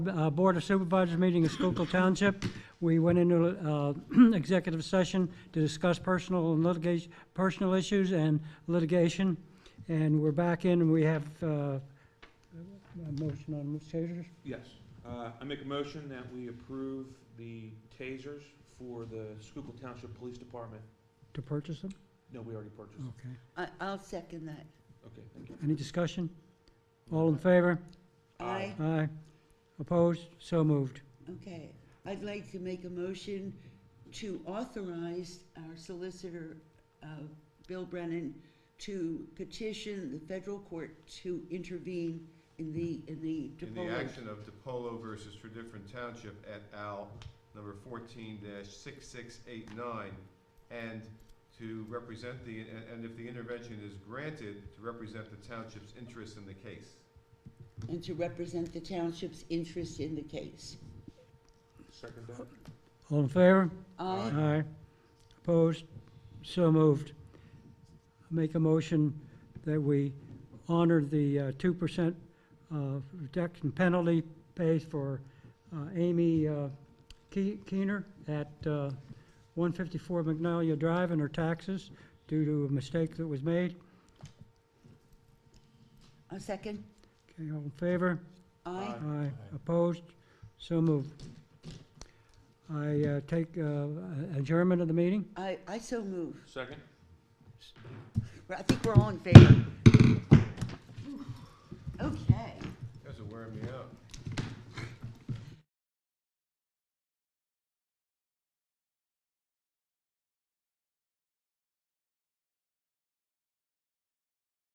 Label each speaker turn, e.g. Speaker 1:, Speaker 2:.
Speaker 1: uh, Board of Supervisors meeting in Schuylkill Township. We went into uh, executive session to discuss personal and litigation, personal issues and litigation. And we're back in, and we have uh, a motion on tasers.
Speaker 2: Yes. Uh, I make a motion that we approve the tasers for the Schuylkill Township Police Department.
Speaker 1: to purchase them?
Speaker 2: No, we already purchased. them.
Speaker 1: Okay.
Speaker 3: I, I'll second that.
Speaker 2: Okay, thank you.
Speaker 1: Any discussion? Oh. All in favor?
Speaker 3: Aye,
Speaker 1: Aye. Opposed? So moved.
Speaker 3: okay. I'd like to make a motion to authorize our solicitor, uh, Bill Brennan, to petition the federal court to intervene in the, in the
Speaker 4: In the
Speaker 3: DePolo.
Speaker 4: action of DePolo versus for different township et al., number fourteen six six eight nine, and to represent the, and- and if the intervention is granted, to represent the township's interest in the case.
Speaker 3: And to represent the township's interest in the case.
Speaker 2: Second that?
Speaker 1: All in favor?
Speaker 3: Aye,
Speaker 1: Aye. Opposed? So moved. Make a motion that we honor the uh, two percent reduction penalty pays for uh, Amy uh, Ke- Keener at uh, one fifty-four Magnolia Drive and her taxes due to a mistake that was made.
Speaker 3: a second?
Speaker 1: Okay, all in favor?
Speaker 3: Aye,
Speaker 2: Aye.
Speaker 1: Aye. Opposed? So moved. I uh, take uh, adjournment of the meeting?
Speaker 3: I, I so move.
Speaker 2: Second?
Speaker 3: I think we're all in favor.